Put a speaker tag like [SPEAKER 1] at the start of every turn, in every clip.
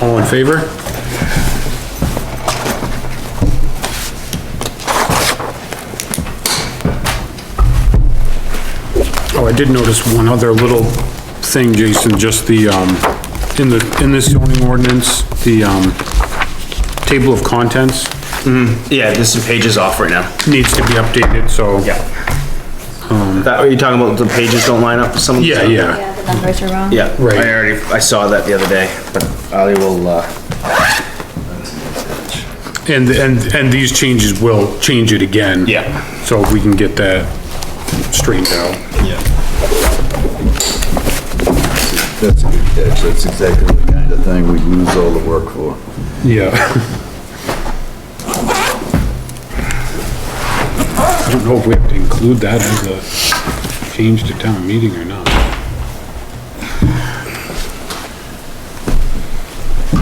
[SPEAKER 1] All in favor? Oh, I did notice one other little thing, Jason, just the, um, in the, in this zoning ordinance, the, um, table of contents
[SPEAKER 2] Yeah, there's some pages off right now.
[SPEAKER 1] needs to be updated, so.
[SPEAKER 2] That, are you talking about the pages don't line up with some? of the
[SPEAKER 1] Yeah,
[SPEAKER 2] stuff?
[SPEAKER 1] yeah,
[SPEAKER 3] Yeah, the numbers are wrong.
[SPEAKER 2] Yeah,
[SPEAKER 1] Right.
[SPEAKER 2] I already, I saw that the other day, but I will, uh,
[SPEAKER 1] and, and, and these changes will change it again.
[SPEAKER 2] Yeah.
[SPEAKER 1] So we can get that straightened out.
[SPEAKER 4] That's a good catch, that's exactly the kind of thing we lose all the work for.
[SPEAKER 1] Yeah. I don't know if we have to include that as a change to town meeting or not.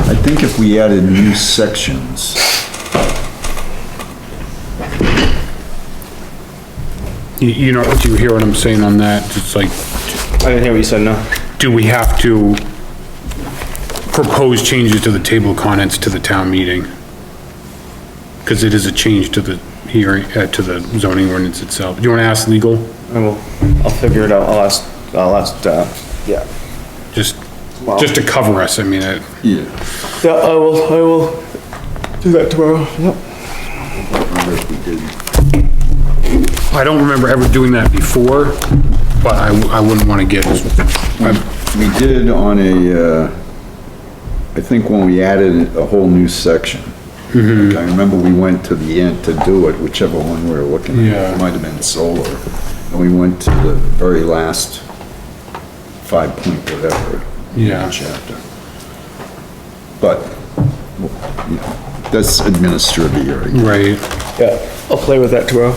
[SPEAKER 4] I think if we added new sections,
[SPEAKER 1] You, you know, do you hear what I'm saying on that? It's like,
[SPEAKER 2] I didn't hear what you said, no.
[SPEAKER 1] do we have to propose changes to the table of contents to the town meeting? Cause it is a change to the hearing, uh, to the zoning ordinance itself. Do you wanna ask legal?
[SPEAKER 2] I will, I'll figure it out, I'll ask, I'll ask, uh, yeah.
[SPEAKER 1] Just, just to cover us, I mean, uh, it.
[SPEAKER 4] yeah,
[SPEAKER 2] Yeah, I will, I will do that tomorrow, yep.
[SPEAKER 4] I wonder if we did.
[SPEAKER 1] I don't remember ever doing that before, but I, I wouldn't wanna get, I-
[SPEAKER 4] Um, We did on a, uh, I think when we added a whole new section.
[SPEAKER 2] Mm-hmm.
[SPEAKER 4] I remember we went to the end to do it, whichever one we were looking at,
[SPEAKER 1] Yeah.
[SPEAKER 4] it might have been solar. And we went to the very last five point whatever.
[SPEAKER 1] Yeah.
[SPEAKER 4] Chapter. But, you know, that's administrative, area.
[SPEAKER 1] right.
[SPEAKER 2] Yeah, I'll play with that tomorrow.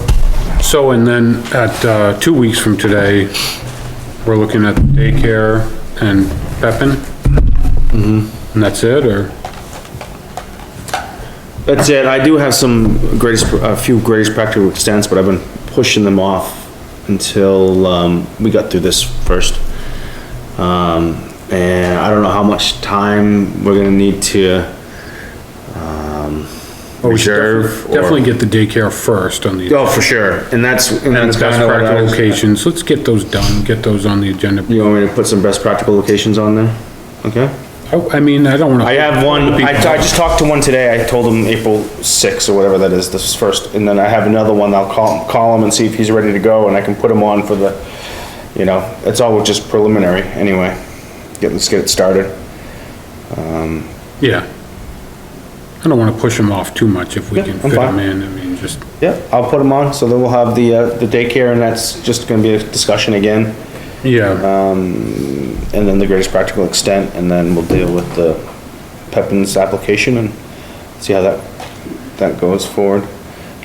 [SPEAKER 1] So, and then at, uh, two weeks from today, we're looking at daycare and Pepin? Mm-hmm.
[SPEAKER 2] Mm-hmm.
[SPEAKER 1] And that's it, or?
[SPEAKER 2] That's it, I do have some greatest, a few greatest practical extents, but I've been pushing them off until, um, we got through this first. Um, and I don't know how much time we're gonna need to, um,
[SPEAKER 1] or
[SPEAKER 2] Oh,
[SPEAKER 1] Oh, we should
[SPEAKER 2] Reserve
[SPEAKER 1] defi- Definitely get the daycare first on the,
[SPEAKER 2] oh, for sure, and that's. And
[SPEAKER 1] and the
[SPEAKER 2] that's
[SPEAKER 1] best
[SPEAKER 2] kinda what I
[SPEAKER 1] practical
[SPEAKER 2] was-
[SPEAKER 1] locations, let's get those done, get those on the agenda.
[SPEAKER 2] You want me to put some best practical locations on there? Okay.
[SPEAKER 1] I, I mean, I don't wanna.
[SPEAKER 2] I have one, I, I just talked to one today, I told him April sixth or whatever that is, this is first, and then I have another one, I'll call, call him and see if he's ready to go, and I can put him on for the, you know, it's all just preliminary, anyway. Get, let's get it started.
[SPEAKER 1] Yeah. I don't wanna push them off too much if we
[SPEAKER 2] Yeah,
[SPEAKER 1] can
[SPEAKER 2] I'm
[SPEAKER 1] fit them
[SPEAKER 2] fine.
[SPEAKER 1] in, I mean, just,
[SPEAKER 2] Yeah, I'll put him on, so then we'll have the, uh, the daycare, and that's just gonna be a discussion again,
[SPEAKER 1] yeah,
[SPEAKER 2] Uh, and then the greatest practical extent, and then we'll deal with the Pepin's application and see how that, that goes forward.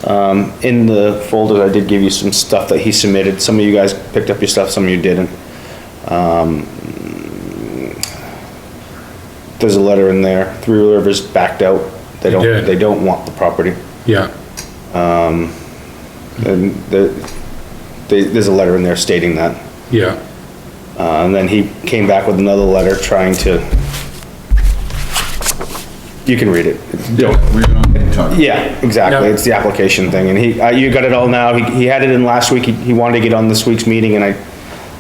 [SPEAKER 2] Um, in the folder, I did give you some stuff that he submitted. Some of you guys picked up your stuff, some of you didn't. Um, there's a letter in there. Three Rivers backed out. They
[SPEAKER 1] They
[SPEAKER 2] don't,
[SPEAKER 1] did.
[SPEAKER 2] they don't want the property.
[SPEAKER 1] yeah,
[SPEAKER 2] And the, they, there's a letter in there stating that.
[SPEAKER 1] yeah,
[SPEAKER 2] Uh, and then he came back with another letter trying to, you can read it. Don't-
[SPEAKER 4] We're not talking.
[SPEAKER 2] Yeah, exactly,
[SPEAKER 1] Yeah.
[SPEAKER 2] it's the application thing, and he, uh, you got it all now, he, he had it in last week, he, he wanted to get on this week's meeting, and I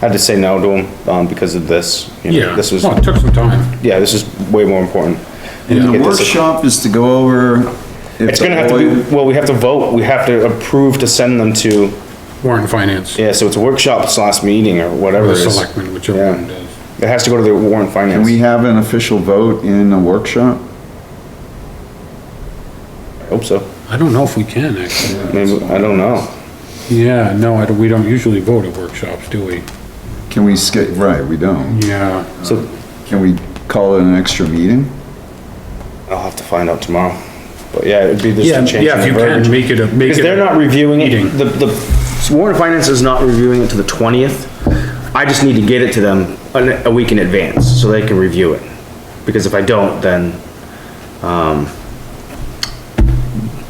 [SPEAKER 2] had to say no to him, um, because of this. you know,
[SPEAKER 1] yeah.
[SPEAKER 2] This was,
[SPEAKER 1] Well, it took some time,
[SPEAKER 2] yeah, this is way more important.
[SPEAKER 4] And the
[SPEAKER 2] Get this-
[SPEAKER 4] workshop is to go over. if
[SPEAKER 2] It's gonna
[SPEAKER 4] the
[SPEAKER 2] have to be,
[SPEAKER 4] lawyer-
[SPEAKER 2] well, we have to vote, we have to approve to send them to,
[SPEAKER 1] Warren Finance,
[SPEAKER 2] yeah, so it's a workshop, it's last meeting, or
[SPEAKER 1] or
[SPEAKER 2] whatever
[SPEAKER 1] the
[SPEAKER 2] it is.
[SPEAKER 1] selectmen, whichever one does.
[SPEAKER 2] It has to go to the warrant
[SPEAKER 4] Can
[SPEAKER 2] finance.
[SPEAKER 4] we have an official vote in a workshop?
[SPEAKER 2] I Hope so,
[SPEAKER 1] I don't know if we can, actually.
[SPEAKER 2] maybe, I don't know.
[SPEAKER 1] Yeah, no, I don't- we don't usually vote at workshops, do we?
[SPEAKER 4] Can we skip, right, we don't.
[SPEAKER 1] Yeah.
[SPEAKER 2] So
[SPEAKER 4] Can we call it an extra meeting?
[SPEAKER 2] I'll have to find out tomorrow. But yeah, it'd be just
[SPEAKER 1] Yeah,
[SPEAKER 2] a change.
[SPEAKER 1] yeah, if you
[SPEAKER 2] in the
[SPEAKER 1] can,
[SPEAKER 2] verbiage.
[SPEAKER 1] make it a, make it.
[SPEAKER 2] Because they're
[SPEAKER 1] a-
[SPEAKER 2] not reviewing it,
[SPEAKER 1] meeting.
[SPEAKER 2] the, the, Warren Finance is not reviewing it to the twentieth. I just need to get it to them a, a week in advance, so they can review it. Because if I don't, then, um,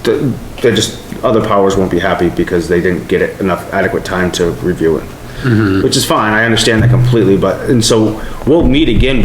[SPEAKER 2] the, they're just, other powers won't be happy because they didn't get it enough adequate
[SPEAKER 1] Mm-hmm.
[SPEAKER 2] time to review it. Which is fine, I understand that completely, but, and so, we'll meet again